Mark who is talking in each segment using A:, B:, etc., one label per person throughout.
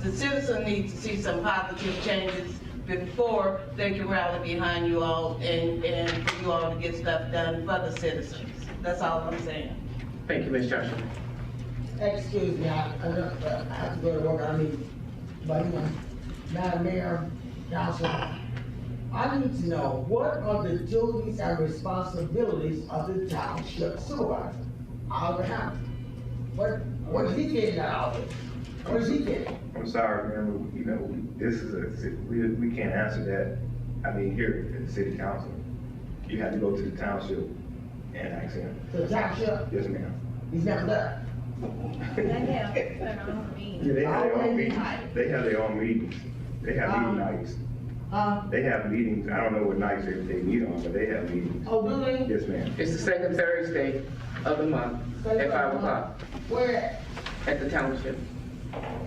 A: the citizen needs to see some positive changes before they can rally behind you all and, and for you all to get stuff done for the citizens. That's all I'm saying.
B: Thank you, Ms. Joshua.
C: Excuse me, I, I don't- uh, I have to go to work, I need, but, you know, Madam Mayor, Council, I need to know, what are the duties and responsibilities of the township supervisor? Oliver Hammond, what, what is he getting out of it? What is he getting?
D: I'm sorry, man, but, you know, we- this is a, ci- we, we can't answer that, I mean, here at the city council. You have to go to the township and ask him,
C: The township,
D: yes, ma'am.
C: he's never left.
E: They have an own meeting.
D: Yeah, They have their own
C: Always
D: meetings,
C: night.
D: they have their own meetings, they have
C: Um,
D: meeting nights,
C: Huh?
D: they have meetings, I don't know what nights they, they meet on, but they have meetings,
C: Oh, do they?
D: yes, ma'am.
B: It's the second Thursday of the month at five o'clock
C: Where,
B: at the township.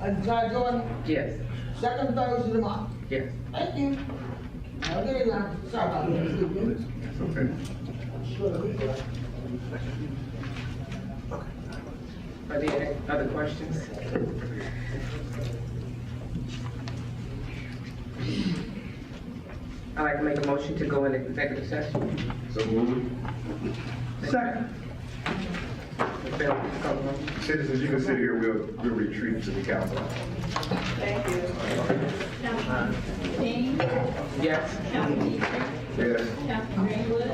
C: at John Jordan,
B: Yes,
C: second Thursday of the month?
B: yes.
C: Thank you. Okay, now, sorry about that, excuse me.
D: It's okay.
B: Are there any other questions? I'd like to make a motion to go into executive session.
D: So move.
B: Second. Ms. Bell, please call the roll.
D: Citizens, you can sit here, we'll, we'll retreat to the council.
E: King,
B: Yes.
E: County Meeting,
D: Yes.
E: County Greenwood.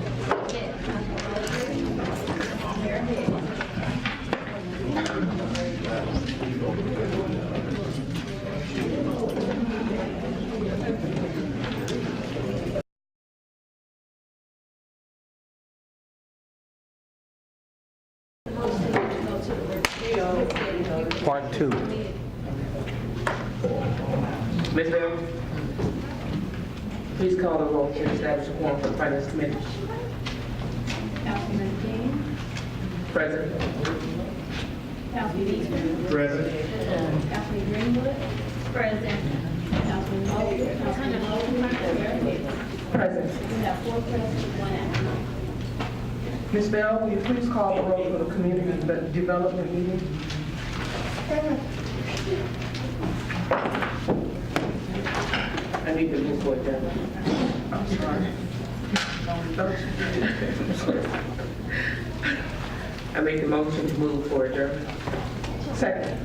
E: Yes. County Blazer, Mayor Hicks.
F: Part two.
B: Ms. Bell? Please call the roll to establish a quorum for the finance committee.
E: Councilman King,
B: Present.
E: County Beaver,
D: Present.
E: County Greenwood. Present. Councilman Moses, Councilman Moses, Mayor Hicks.
B: Present.
E: We have four present, one absent.
B: Ms. Bell, will you please call the roll for the community de- development meeting? I need to move forward, Deb. I'm sorry. I make the motion to move forward, Deb. Second.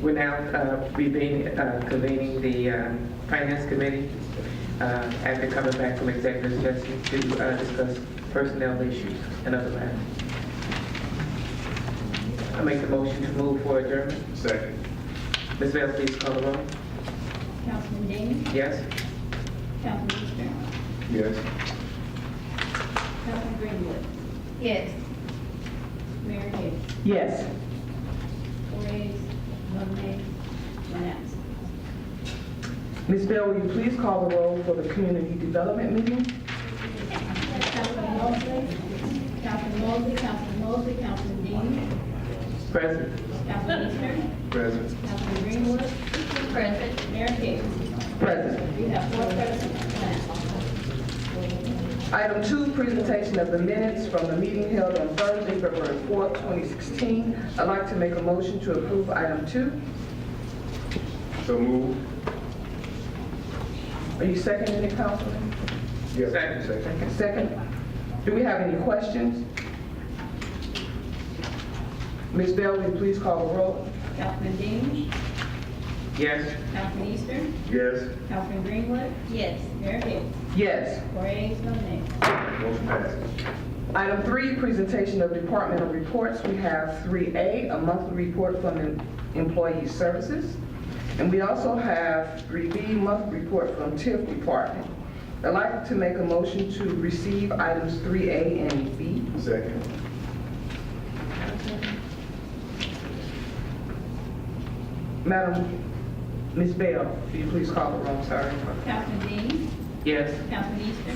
B: We're now uh, reconvening uh, convening the um, Finance Committee uh, after coming back from executive session to uh, discuss personnel issues and other matters. I make the motion to move for adjournment.
D: Second.
B: Ms. Bell, please call the roll.
E: Councilman Dean,
B: Yes?
E: Councilman Easter,
D: Yes.
E: Councilman Greenwood. Yes. Mayor Hicks,
B: Yes.
E: four ayes, one nay, one absent.
B: Ms. Bell, will you please call the roll for the community development meeting?
E: Councilman Mosley, Councilman Mosley, Councilman Mosley, Councilman Dean,
B: Present.
E: Councilman Easter,
D: Present.
E: Councilman Greenwood. Present. Mayor Hicks,
B: Present.
E: we have four present, one absent.
B: Item two, presentation of the minutes from the meeting held on Thursday, February 4th, 2016. I'd like to make a motion to approve item two.
D: So move.
B: Are you seconding it, Councilman?
D: Yes. Second.
B: Second. Do we have any questions? Ms. Bell, will you please call the roll?
E: Councilman Dean,
B: Yes.
E: Councilman Easter,
D: Yes.
E: Councilman Greenwood. Yes. Mayor Hicks,
B: Yes.
E: four ayes, no nays.
D: Motion passes.
B: Item three, presentation of departmental reports. We have 3A, a monthly report from the Employee Services. And we also have 3B, monthly report from TIF Department. I'd like to make a motion to receive items 3A and B.
D: Second.
B: Madam, Ms. Bell, will you please call the roll? Sorry.
E: Councilman Dean,
B: Yes.
E: Councilman Easter,